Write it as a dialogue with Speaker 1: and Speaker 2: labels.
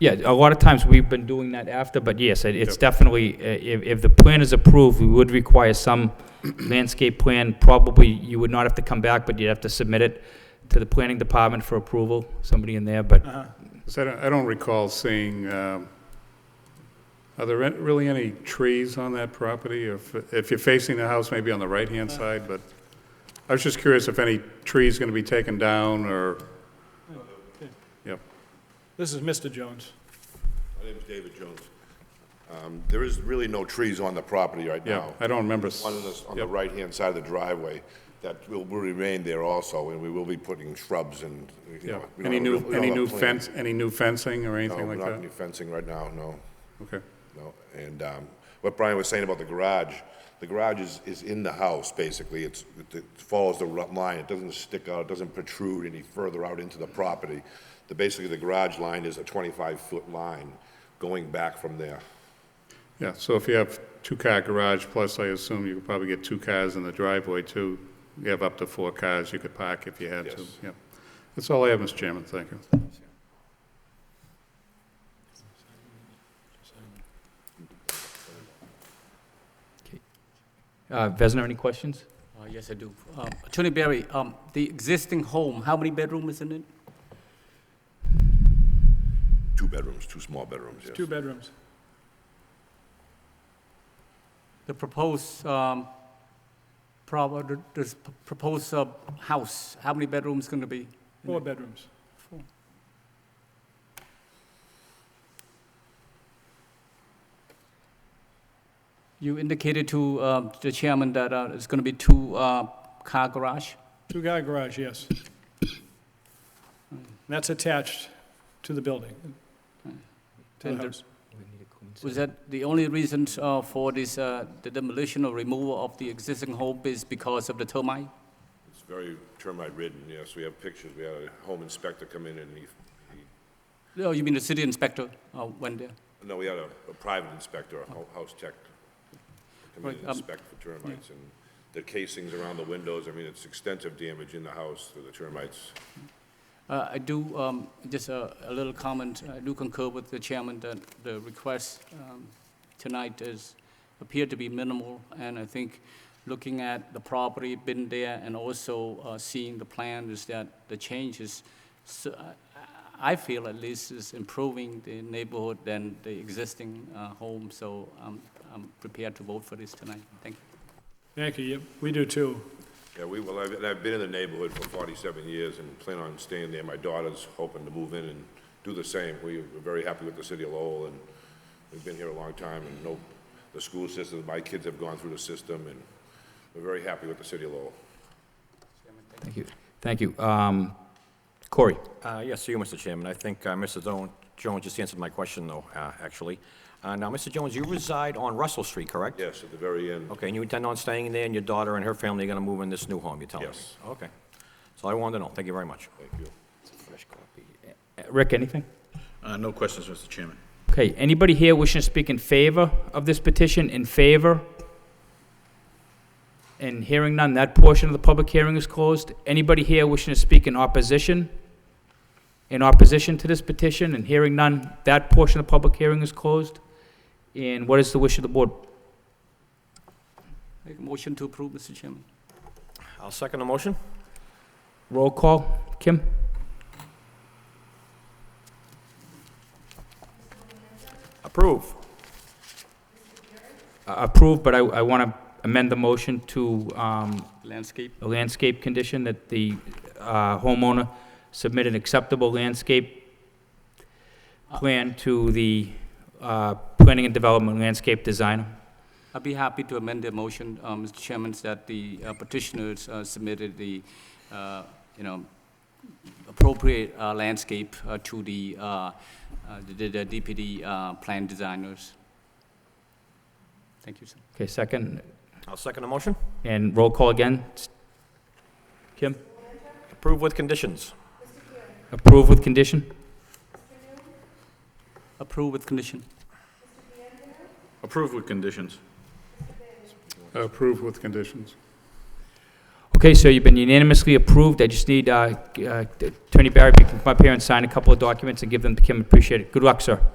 Speaker 1: Yeah, a lot of times we've been doing that after, but yes, it- it's
Speaker 2: Yep.
Speaker 1: definitely, uh, if, if the plan is approved, we would require some landscape plan. Probably, you would not have to come back, but you'd have to submit it to the planning department for approval, somebody in there, but
Speaker 3: Uh-huh.
Speaker 2: 'Cause I don't, I don't recall seeing, um, are there an- really any trees on that property? If, if you're facing the house, maybe on the right-hand side, but I was just curious if any trees going to be taken down or, yep.
Speaker 3: This is Mr. Jones.
Speaker 4: My name's David Jones. Um, There is really no trees on the property right
Speaker 2: Yeah,
Speaker 4: now.
Speaker 2: I don't remember s-
Speaker 4: One on the, on the
Speaker 2: yep.
Speaker 4: right-hand side of the driveway, that will will remain there also, and we will be putting shrubs and, you
Speaker 2: Yeah,
Speaker 4: know. we don't
Speaker 2: any
Speaker 4: have-
Speaker 2: new,
Speaker 4: we don't
Speaker 2: any
Speaker 4: have
Speaker 2: new
Speaker 4: plans.
Speaker 2: fence, any new fencing or anything
Speaker 4: No,
Speaker 2: like
Speaker 4: not any
Speaker 2: that?
Speaker 4: fencing right now, no,
Speaker 2: Okay,
Speaker 4: no. And um, what Brian was saying about the garage, the garage is, is in the house, basically. It's, it- it follows the ru- line, it doesn't stick out, it doesn't protrude any further out into the property. The, basically, the garage line is a 25-foot line going back from there.
Speaker 2: yeah, so if you have two-car garage, plus I assume you could probably get two cars in the driveway too, you have up to four cars you could park if you had to,
Speaker 4: Yes.
Speaker 2: yeah. That's all I have, Mr. Chairman, thank you.
Speaker 1: uh, Vesna, any questions?
Speaker 5: Uh, Yes, I do. Uh, Attorney Barry, um, the existing home, how many bedrooms is in it?
Speaker 4: Two bedrooms, two small bedrooms, yes.
Speaker 3: Two bedrooms.
Speaker 5: The proposed, um, prob- the the proposed uh, house, how many bedrooms going to be?
Speaker 3: Four bedrooms.
Speaker 5: You indicated to uh, the chairman that uh, it's going to be two-car garage?
Speaker 3: Two-car garage, yes. And That's attached to the building, to the
Speaker 5: And the-
Speaker 3: house.
Speaker 5: Was that the only reason uh, for this, uh, the demolition or removal of the existing home is because of the termite?
Speaker 4: It's very termite ridden, yes, we have pictures, we had a home inspector come in and he, he,
Speaker 5: Oh, you mean the city inspector uh, went there?
Speaker 4: no, we had a, a private inspector, a hou- house tech, come in
Speaker 5: Right,
Speaker 4: and
Speaker 5: um,
Speaker 4: inspect for termites, and the casings around the windows, I mean, it's extensive damage in the house to the termites.
Speaker 5: Uh, I do, um, just a a little comment, I do concur with the chairman that the request um, tonight is, appeared to be minimal, and I think looking at the property, been there, and also uh, seeing the plan is that the change is, s- uh, I feel at least is improving the neighborhood than the existing uh, home, so I'm I'm prepared to vote for this tonight. Thank you.
Speaker 3: Thank you, Yep, we do too.
Speaker 4: Yeah, we, well, I've, and I've been in the neighborhood for forty-seven years and plan on staying there, my daughter's hoping to move in and do the same, we are very happy with the city of Lowell, and we've been here a long time, and no, the school system, my kids have gone through the system, and we're very happy with the city of Lowell.
Speaker 1: Thank you, thank you. Um, Corey?
Speaker 6: Uh, Yes, you, Mr. Chairman. I think uh, Mr. Don- Jones just answered my question, though, uh, actually. Uh, Now, Mr. Jones, you reside on Russell Street, correct?
Speaker 4: Yes, at the very end.
Speaker 6: Okay, and you intend on staying there, and your daughter and her family are going to move in this new home, you're telling me?
Speaker 4: Yes.
Speaker 6: Okay. So I wanted to know. Thank you very much.
Speaker 4: Thank you.
Speaker 1: Rick, anything?
Speaker 7: Uh, No questions, Mr. Chairman.
Speaker 1: Okay, anybody here wishing to speak in favor of this petition, in favor? And hearing none, that portion of the public hearing is closed. Anybody here wishing to speak in opposition? In opposition to this petition, and hearing none, that portion of the public hearing is closed. And what is the wish of the board?
Speaker 5: Make a motion to approve, Mr. Chairman.
Speaker 6: I'll second the motion.
Speaker 1: Roll call, Kim?
Speaker 6: Approve.
Speaker 1: Uh, Approved, but I, I want to amend the motion to, um,
Speaker 5: Landscape.
Speaker 1: a landscape condition that the uh, homeowner submit an acceptable landscape plan to the uh, Planning and Development Landscape Designer.
Speaker 5: I'd be happy to amend the motion, uh, Mr. Chairman, that the uh, petitioners uh, submitted the, uh, you know, appropriate uh, landscape uh, to the, uh, uh, the the DPD uh, plan designers. Thank you, sir.
Speaker 1: Okay, second,
Speaker 6: I'll second the motion.
Speaker 1: and roll call again. Kim?
Speaker 6: Approve with conditions.
Speaker 1: Approve with condition?
Speaker 5: Approve with condition.
Speaker 7: Approved with conditions.
Speaker 2: Approved with conditions.
Speaker 1: Okay, so you've been unanimously approved. I just need uh, uh, Attorney Barry to come up here and sign a couple of documents and give them to Kim. Appreciate it. Good luck, sir.